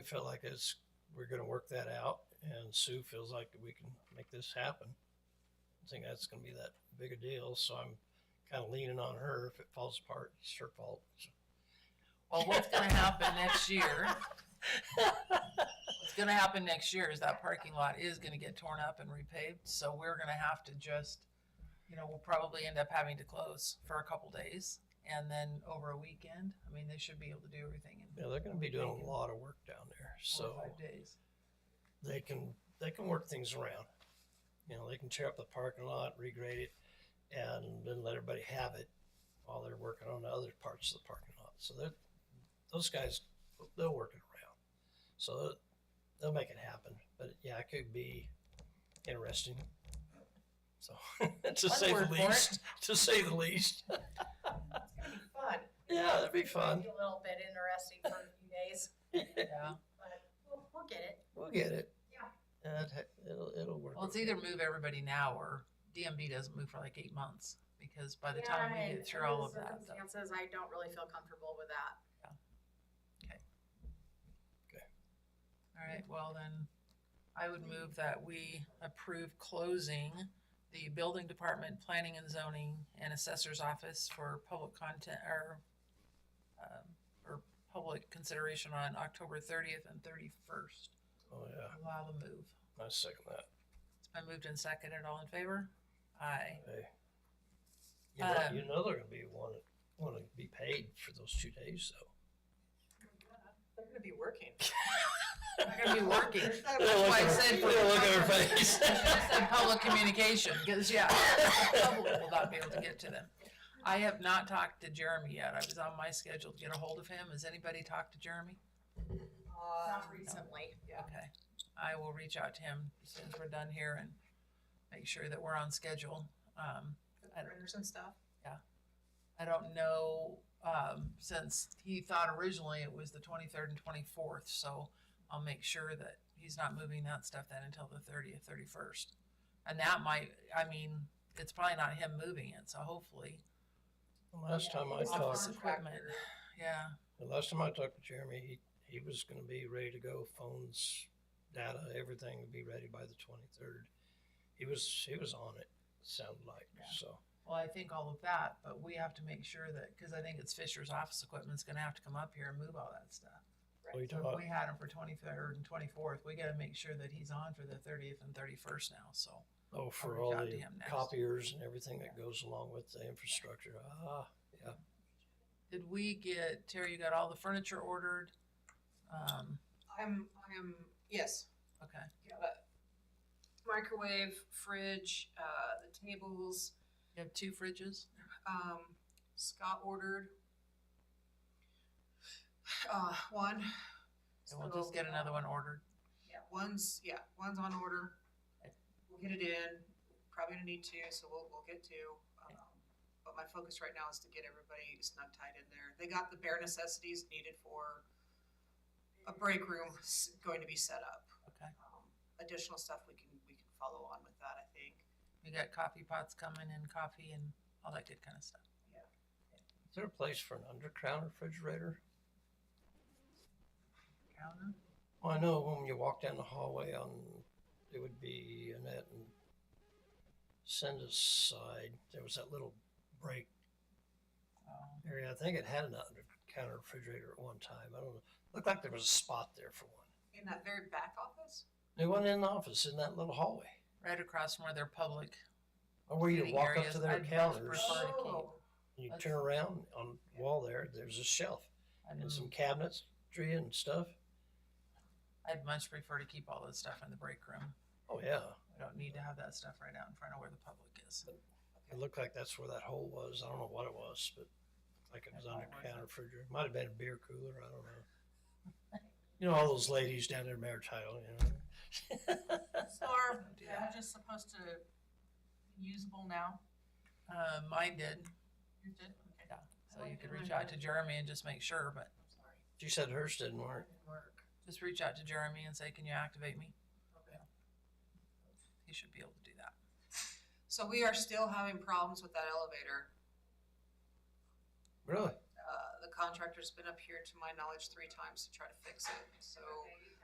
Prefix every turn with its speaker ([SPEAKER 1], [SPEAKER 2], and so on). [SPEAKER 1] I feel like it's, we're gonna work that out, and Sue feels like we can make this happen. I think that's gonna be that big a deal, so I'm kinda leaning on her. If it falls apart, it's her fault.
[SPEAKER 2] Well, what's gonna happen next year? What's gonna happen next year is that parking lot is gonna get torn up and repaved, so we're gonna have to just, you know, we'll probably end up having to close for a couple days and then over a weekend. I mean, they should be able to do everything in
[SPEAKER 1] Yeah, they're gonna be doing a lot of work down there,
[SPEAKER 2] four
[SPEAKER 1] so
[SPEAKER 2] or five days.
[SPEAKER 1] they can, they can work things around. You know, they can tear up the parking lot, regrade it, and then let everybody have it while they're working on the other parts of the parking lot. So they're, those guys, they'll work it around. So they'll- they'll make it happen. But yeah, it could be interesting. So to
[SPEAKER 2] One
[SPEAKER 1] say
[SPEAKER 2] word
[SPEAKER 1] the
[SPEAKER 2] for it.
[SPEAKER 1] least, to say the least.
[SPEAKER 3] It's gonna be fun.
[SPEAKER 1] Yeah, that'd be
[SPEAKER 3] It's gonna
[SPEAKER 1] fun.
[SPEAKER 3] be A little bit interesting for a few days,
[SPEAKER 2] Yeah.
[SPEAKER 3] but we'll, we'll get it.
[SPEAKER 1] We'll get it.
[SPEAKER 3] Yeah.
[SPEAKER 1] And it- it'll, it'll work.
[SPEAKER 2] Well, it's
[SPEAKER 1] okay.
[SPEAKER 2] either move everybody now or DMB doesn't move for like eight months because by the time we
[SPEAKER 3] Yeah, and
[SPEAKER 2] get through all
[SPEAKER 3] under
[SPEAKER 2] of
[SPEAKER 3] the
[SPEAKER 2] that, though.
[SPEAKER 3] Circumstances, I don't really feel comfortable with that.
[SPEAKER 2] All right, well then, I would move that we approve closing the building department, planning and zoning, and assessor's office for public content, or, um, or public consideration on October thirtieth and thirty-first.
[SPEAKER 1] Oh, yeah.
[SPEAKER 2] Allow the move.
[SPEAKER 1] I second that.
[SPEAKER 2] It's been moved and seconded, all in favor? Aye.
[SPEAKER 1] Hey. You know,
[SPEAKER 2] Um,
[SPEAKER 1] you know they're gonna be want want to be paid for those two days though.
[SPEAKER 4] They're gonna be working.
[SPEAKER 2] They're gonna be working.
[SPEAKER 4] There's no-
[SPEAKER 2] That's why I
[SPEAKER 1] Look at her-
[SPEAKER 2] said.
[SPEAKER 1] yeah, look at her face.
[SPEAKER 2] I should've said public communication, because yeah, public will not be able to get to them. I have not talked to Jeremy yet. I was on my schedule to get a hold of him. Has anybody talked to Jeremy?
[SPEAKER 4] Uh,
[SPEAKER 3] Not recently.
[SPEAKER 4] Yeah.
[SPEAKER 2] Okay. I will reach out to him as soon as we're done here and make sure that we're on schedule. Um,
[SPEAKER 4] the
[SPEAKER 2] I don't-
[SPEAKER 4] Printers and stuff.
[SPEAKER 2] I don't know, um, since he thought originally it was the twenty-third and twenty-fourth, so I'll make sure that he's not moving that stuff then until the thirtieth, thirty-first. And that might, I mean, it's probably not him moving it, so hopefully,
[SPEAKER 1] The Last time I
[SPEAKER 3] it's a
[SPEAKER 1] talked,
[SPEAKER 2] office
[SPEAKER 3] farm
[SPEAKER 2] equipment,
[SPEAKER 3] tractor.
[SPEAKER 2] yeah,
[SPEAKER 1] the last time I talked to Jeremy, he he was gonna be ready to go. Phones, data, everything would be ready by the twenty third. He was he was on it. Sounded like
[SPEAKER 2] Yeah.
[SPEAKER 1] so.
[SPEAKER 2] well, I think all of that, but we have to make sure that, cause I think it's Fisher's office equipment's gonna have to come up here and move all that stuff.
[SPEAKER 1] What are you
[SPEAKER 2] So
[SPEAKER 1] talking
[SPEAKER 2] if
[SPEAKER 1] about?
[SPEAKER 2] we had him for twenty-third and twenty-fourth, we gotta make sure that he's on for the thirtieth and thirty-first now, so.
[SPEAKER 1] Oh, for
[SPEAKER 2] reach
[SPEAKER 1] all
[SPEAKER 2] out to
[SPEAKER 1] the
[SPEAKER 2] him next.
[SPEAKER 1] copiers and everything that goes along with the infrastructure. Ah,
[SPEAKER 2] Did we get, Terry, you got all the furniture ordered? Um,
[SPEAKER 4] I'm, I'm, yes,
[SPEAKER 2] okay,
[SPEAKER 4] yeah, but microwave, fridge, uh, the tables,
[SPEAKER 2] you have two fridges?
[SPEAKER 4] um, Scott ordered. Uh, one.
[SPEAKER 2] And we'll just
[SPEAKER 4] So,
[SPEAKER 2] get another one
[SPEAKER 4] um,
[SPEAKER 2] ordered.
[SPEAKER 4] Yeah, one's, yeah, one's on order.
[SPEAKER 2] Okay.
[SPEAKER 4] We'll get it in, probably gonna need two, so we'll, we'll get two.
[SPEAKER 2] Okay.
[SPEAKER 4] Um, But my focus right now is to get everybody snug tied in there. They got the bare necessities needed for a break room s- going to be set up.
[SPEAKER 2] Okay.
[SPEAKER 4] Um, Additional stuff we can, we can follow on with that, I think.
[SPEAKER 2] We got coffee pots coming and coffee and all that good kind of stuff.
[SPEAKER 1] is there a place for an underground refrigerator?
[SPEAKER 2] Counter?
[SPEAKER 1] Well, I know when you walk down the hallway on, it would be Annette and Cinda's side, there was that little break
[SPEAKER 2] Oh,
[SPEAKER 1] area. I think it had an under counter refrigerator at one time. I don't know. Looked like there was a spot there for one.
[SPEAKER 4] In that very back office?
[SPEAKER 1] There wasn't in the office in that little hallway.
[SPEAKER 2] Right across from where their public,
[SPEAKER 1] Or where you
[SPEAKER 2] Sitting
[SPEAKER 1] walk up
[SPEAKER 2] areas,
[SPEAKER 1] to their
[SPEAKER 2] I'd much
[SPEAKER 1] counters,
[SPEAKER 2] prefer- Sorry to keep-
[SPEAKER 4] Oh,
[SPEAKER 1] and you
[SPEAKER 2] that's-
[SPEAKER 1] turn around on the wall there, there's a shelf
[SPEAKER 2] I'd,
[SPEAKER 1] and some cabinets, tree and stuff.
[SPEAKER 2] I'd much prefer to keep all this stuff in the break room.
[SPEAKER 1] Oh, yeah.
[SPEAKER 2] We don't need to have that stuff right out in front of where the public is.
[SPEAKER 1] It looked like that's where that hole was. I don't know what it was, but like it was
[SPEAKER 2] That's
[SPEAKER 1] under
[SPEAKER 2] what it was.
[SPEAKER 1] counter refrigerator. Might have been a beer cooler. I don't know. You know, all those ladies down there in Maritile, you know.
[SPEAKER 3] So are
[SPEAKER 2] Don't do that.
[SPEAKER 3] just supposed to usable now?
[SPEAKER 2] Uh, mine did,
[SPEAKER 3] You did? Okay.
[SPEAKER 2] yeah. So you could reach out to Jeremy and just make sure, but
[SPEAKER 3] I'm sorry.
[SPEAKER 1] She said hers didn't work.
[SPEAKER 3] Didn't work.
[SPEAKER 2] just reach out to Jeremy and say, can you activate me?
[SPEAKER 3] Okay.
[SPEAKER 2] He should be able to do that.
[SPEAKER 4] So we are still having problems with that elevator.
[SPEAKER 1] Really?
[SPEAKER 4] uh, the contractor's been up here to my knowledge three times to try to fix it, so.
[SPEAKER 3] Okay.